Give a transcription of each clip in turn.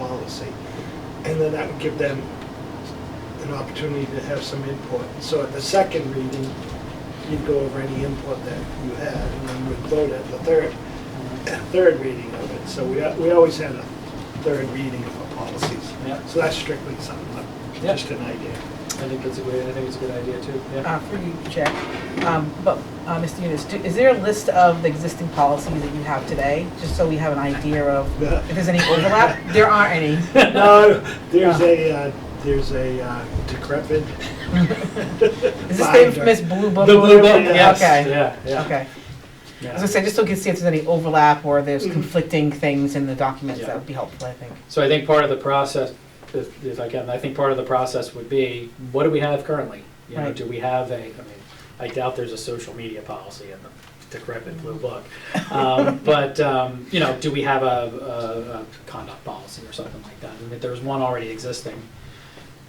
policy. And then that would give them an opportunity to have some input. So at the second reading, you'd go over any input that you had, and then we'd vote at the third, third reading of it. So we, we always had a third reading of our policies. Yeah. So that's strictly something, that- Yeah. just an idea. I think it's a good, I think it's a good idea too, uh, Ah. yeah. for you, Jack. Um, But, uh, Mr. Yunus, do- is there a list of the existing policies that you have today, just so we have an idea of if there's any overlap? There aren't any. No, there's a, uh, there's a uh, decrepit. Is this the infamous blue book? The blue book, yes. Okay, Yeah, yeah. okay. I was yeah. gonna say, just so we can see if there's any overlap or there's Mhm. conflicting things in the documents, Yeah. that would be helpful, I think. So I think part of the process, if if I can, I think part of the process would be, what do we have currently? You know, Right. do we have a, I mean, I doubt there's a social media policy in the decrepit blue book. Um, But, um, you know, do we have a- a, a conduct policy or something like that? And if there's one already existing,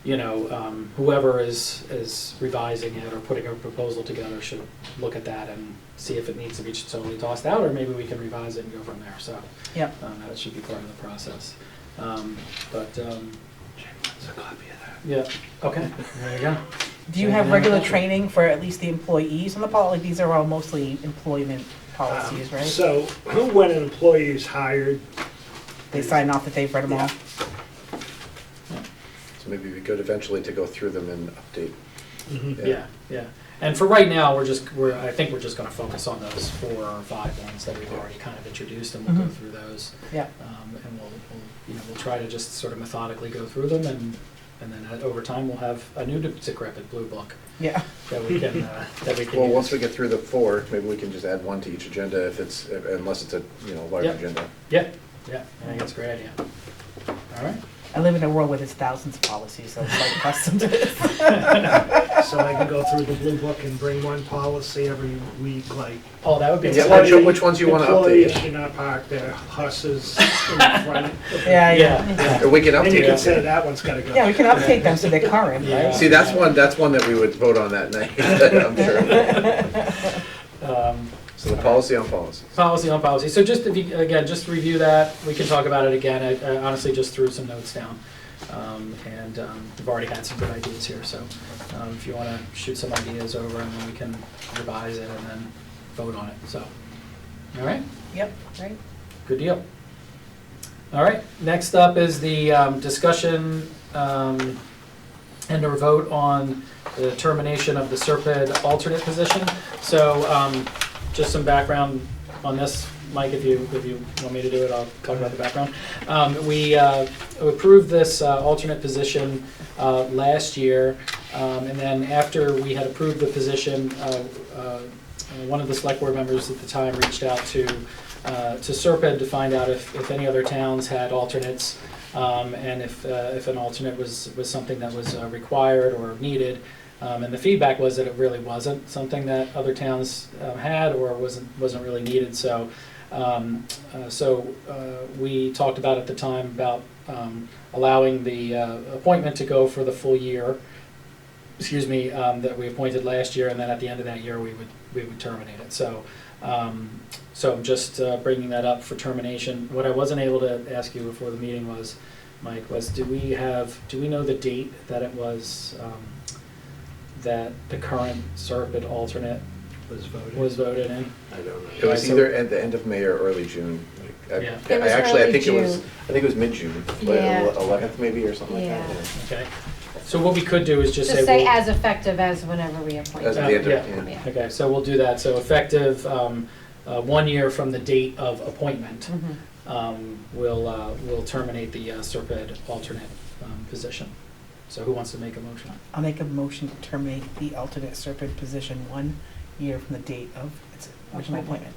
you know, um, whoever is, is revising it or putting a proposal together should look at that and see if it needs to be totally tossed out, or maybe we can revise it and go from there, so. Yep. Um, that should be part of the process. Um, but, um, It's a copy of that. yeah, okay, there you go. Do you have regular training for at least the employees on the policy? These are all mostly employment policies, Um, right? So when an employee is hired, They sign off that they've read them all? So maybe we could eventually to go through them and update. Mm-hmm. Yeah, yeah. And for right now, we're just, we're, I think we're just gonna focus on those four or five ones that we've already kind of introduced, and we'll go Mm-hmm. through Mhm. those. Yeah. Um, and we'll, we'll, you know, we'll try to just sort of methodically go through them, and, and then uh, over time, we'll have a new decrepit blue book Yeah, that we can, uh, that we can Well, use. once we get through the four, maybe we can just add one to each agenda if it's, unless it's a, you know, large Yep. agenda. Yeah, yeah, I think that's a great idea. All right. I live in a world where there's thousands of policies, so it's like custom to this. so I can go through the blue book and bring one policy every week, like. Oh, that would be. Yeah, exciting. which- which ones you wanna update? Employees should not park their horses in front. of- Yeah, yeah. Yeah, yeah. Or we can And you update can say it. that one's gotta go. Yeah, we can update them so they're current, Yeah. right? See, that's one, that's one that we would vote on that night, I'm sure. Um, So the policy on policies. Policy on policy. So just, if you, again, just to review that. We can talk about it again. I I honestly just threw some notes down. Um, And um, we've already had some good ideas here, so um, if you want to shoot some ideas over and then we can revise it and then vote on it, so. All right, Yep, right. good deal. All right, next up is the um, discussion um, and or vote on the termination of the Serpide alternate position. So um, just some background on this, Mike, if you, if you want me to do it, I'll talk about the background. Um, We uh, approved this uh, alternate position uh, last year, um, and then after we had approved the position, uh, uh, one of the select board members at the time reached out to, uh, to Serpide to find out if, if any other towns had alternates, um, and if, uh, if an alternate was, was something that was uh, required or needed. Um, and the feedback was that it really wasn't something that other towns um, had or wasn't wasn't really needed. So, um, uh, so uh, we talked about at the time about um, allowing the uh, appointment to go for the full year. Excuse me, um, that we appointed last year, and then at the end of that year, we would we would terminate it. So. Um, so I'm just uh, bringing that up for termination. What I wasn't able to ask you before the meeting was, Mike, was do we have, do we know the date that it was, um, that the current Serpent alternate Was voted. was voted in? I don't know. It was so- either at the end of May or early June. Like, I- Yeah. It I was Actually, I early think it was, June. I think it was mid-June, Yeah. like eleventh maybe or something like that. Yeah. yeah. Okay. So what we could do is just say. Just say we'll- as effective as whenever we appoint. As of Uh, the end yeah. of, yeah. Yeah. Okay, so we'll do that. So effective um, uh, one year from the date of appointment, Mm-hmm. Mhm. um, we'll, uh, we'll terminate the uh, Serpent alternate um, position. So who wants to make a motion? I'll make a motion to terminate the alternate serpent position one year from the date of its original appointment.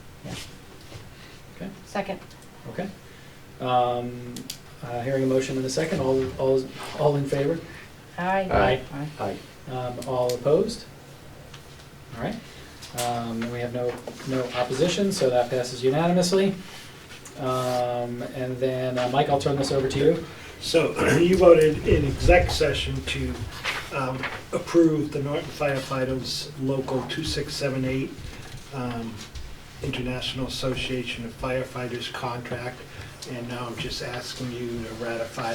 Second, Okay. Um, uh, Hearing a motion in a second, all, all, all in favor? aye. Aye. Aye. Aye. Um, All opposed? All right. Um, And we have no, no opposition, so that passes unanimously. Um, And then, uh, Mike, I'll turn this over to you. So you voted in exec session to um, approve the Norton firefighters local 2678 um, International Association of Firefighters contract. And now I'm just asking you to ratify